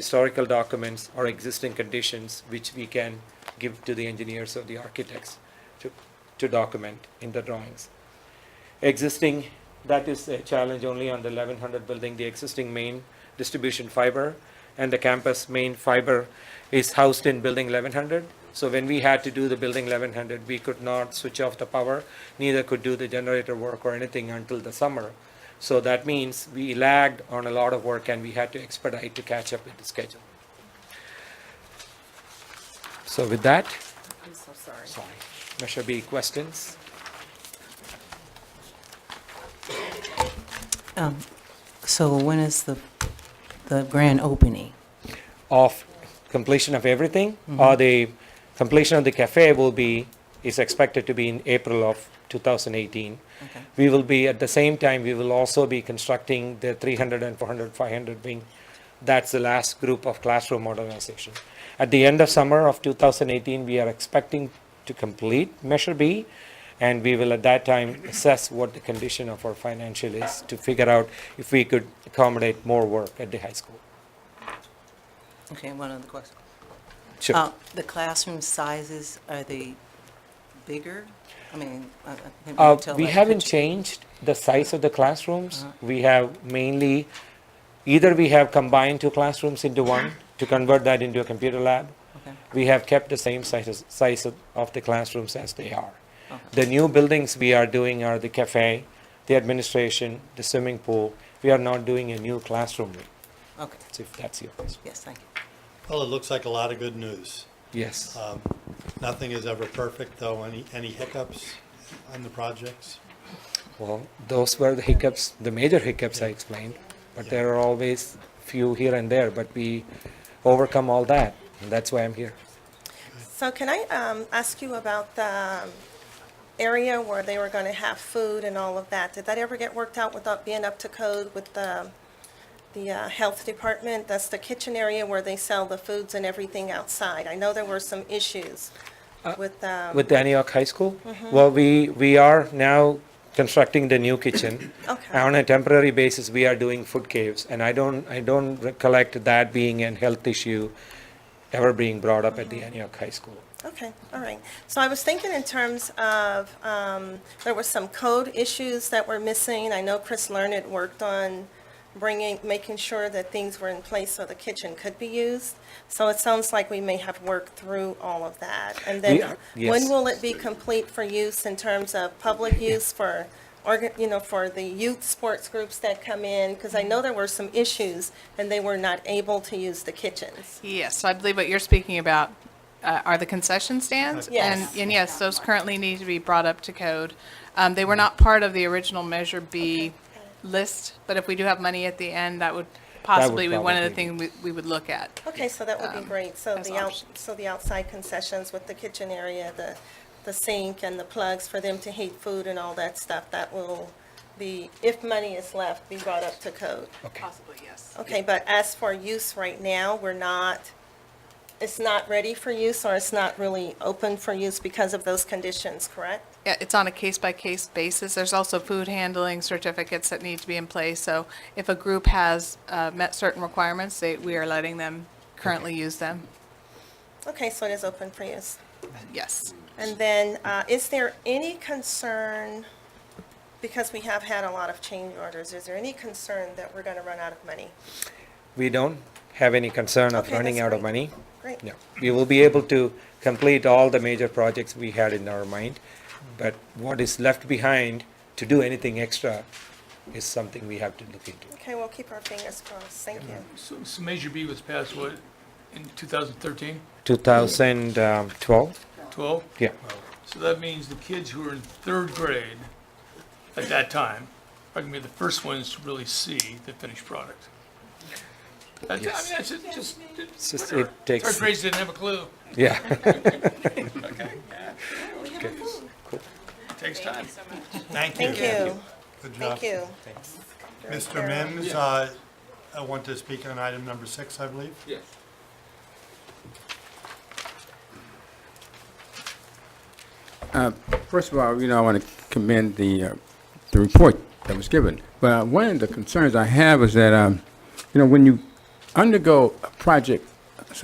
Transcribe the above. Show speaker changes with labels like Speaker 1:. Speaker 1: historical documents or existing conditions which we can give to the engineers or the architects to, to document in the drawings. Existing, that is a challenge only on the eleven hundred building, the existing main distribution fiber and the campus main fiber is housed in building eleven hundred. So when we had to do the building eleven hundred, we could not switch off the power, neither could do the generator work or anything until the summer. So that means we lagged on a lot of work and we had to expedite to catch up with the schedule. So with that,
Speaker 2: I'm so sorry.
Speaker 1: sorry, Measure B questions?
Speaker 3: So when is the, the grand opening?
Speaker 1: of completion of everything, or the completion of the cafe will be, is expected to be in April of 2018.
Speaker 3: Okay.
Speaker 1: We will be, at the same time, we will also be constructing the 300 and 400, 500 wing. That's the last group of classroom modernization. At the end of summer of 2018, we are expecting to complete Measure B, and we will at that time assess what the condition of our financial is to figure out if we could accommodate more work at the high school.
Speaker 3: Okay, one other question.
Speaker 1: Sure.
Speaker 3: Uh, The classroom sizes, are they bigger? I mean, I I think we
Speaker 1: Uh,
Speaker 3: can tell.
Speaker 1: We
Speaker 3: by the
Speaker 1: haven't
Speaker 3: picture.
Speaker 1: changed the size of the classrooms. We have mainly, either we have combined two classrooms into one to convert that into a computer lab.
Speaker 3: Okay.
Speaker 1: We have kept the same sizes, size of- of the classrooms as they are.
Speaker 3: Okay.
Speaker 1: The new buildings we are doing are the cafe, the administration, the swimming pool. We are not doing a new classroom, room,
Speaker 3: Okay,
Speaker 1: so if that's your question.
Speaker 3: yes, thank you.
Speaker 4: Well, it looks like a lot of good news.
Speaker 1: Yes.
Speaker 4: Um, Nothing is ever perfect, though. Any, any hiccups on the projects?
Speaker 1: Well, those were the hiccups, the major hiccups I explained, but there are always few here and there, but we overcome all that, and that's why I'm here.
Speaker 2: So can I um, ask you about the um, area where they were going to have food and all of that? Did that ever get worked out without being up to code with the, the uh, health department? That's the kitchen area where they sell the foods and everything outside. I know there were some issues with, um,
Speaker 1: With the Antioch High School?
Speaker 2: Mm-hmm.
Speaker 1: Well, we, we are now constructing the new kitchen.
Speaker 2: Okay.
Speaker 1: On a temporary basis, we are doing food caves, and I don't, I don't recollect that being an health issue ever being brought up at
Speaker 2: Mm-hmm.
Speaker 1: the Antioch High School.
Speaker 2: okay, all right. So I was thinking in terms of, um, there were some code issues that were missing. I know Chris Learned worked on bringing, making sure that things were in place so the kitchen could be used. So it sounds like we may have worked through all of that. And
Speaker 1: We
Speaker 2: then,
Speaker 1: are- yes.
Speaker 2: when will it be complete for use in terms of public use for, orga- you know, for the youth sports groups that come in? Because I know there were some issues, and they were not able to use the kitchens.
Speaker 5: Yes, so I believe what you're speaking about uh, are the concession stands.
Speaker 2: Yes.
Speaker 5: And, and yes, those currently need to be brought up to code. Um, They were not part of the original Measure B list, but if we do have money at the end, that would possibly be one of the
Speaker 1: probably
Speaker 5: things we- we would look at.
Speaker 2: Okay, so that would be great. So
Speaker 5: as
Speaker 2: the out,
Speaker 5: options.
Speaker 2: so the outside concessions with the kitchen area, the, the sink and the plugs for them to heat food and all that stuff, that will be, if money is left, be brought up to code.
Speaker 1: Okay.
Speaker 5: Possibly, yes.
Speaker 2: Okay, but as for use right now, we're not, it's not ready for use or it's not really open for use because of those conditions, correct?
Speaker 5: Yeah, it's on a case-by-case basis. There's also food handling certificates that need to be in place. So if a group has uh, met certain requirements, they, we are letting them currently use them.
Speaker 2: Okay, so it is open for use.
Speaker 5: Yes.
Speaker 2: And then, uh, is there any concern, because we have had a lot of change orders, is there any concern that we're gonna run out of money?
Speaker 1: We don't have any concern of
Speaker 2: Okay,
Speaker 1: running
Speaker 2: that's
Speaker 1: out of
Speaker 2: great.
Speaker 1: money.
Speaker 2: Great.
Speaker 1: No, we will be able to complete all the major projects we had in our mind, but what is left behind to do anything extra is something we have to look into.
Speaker 2: Okay, we'll keep our fingers crossed. Thank you.
Speaker 6: So, so Measure B was passed, what, in 2013,
Speaker 1: 2012?
Speaker 6: 12?
Speaker 1: Yeah,
Speaker 6: So that means the kids who are in third grade at that time are gonna be the first ones to really see the finished product. That's, I mean, that's just- just,
Speaker 1: it's just,
Speaker 6: whatever.
Speaker 1: it takes,
Speaker 6: Third grades didn't have a clue.
Speaker 1: yeah.
Speaker 6: It takes time.
Speaker 4: Thank you.
Speaker 2: Thank you.
Speaker 4: Good job.
Speaker 2: Thank you.
Speaker 4: Mr. Mims, uh, I want to speak on item number six, I believe.
Speaker 7: Yes.
Speaker 8: First of all, you know, I want to commend the, uh, the report that was given. But uh, one of the concerns I have is that, um, you know, when you undergo a project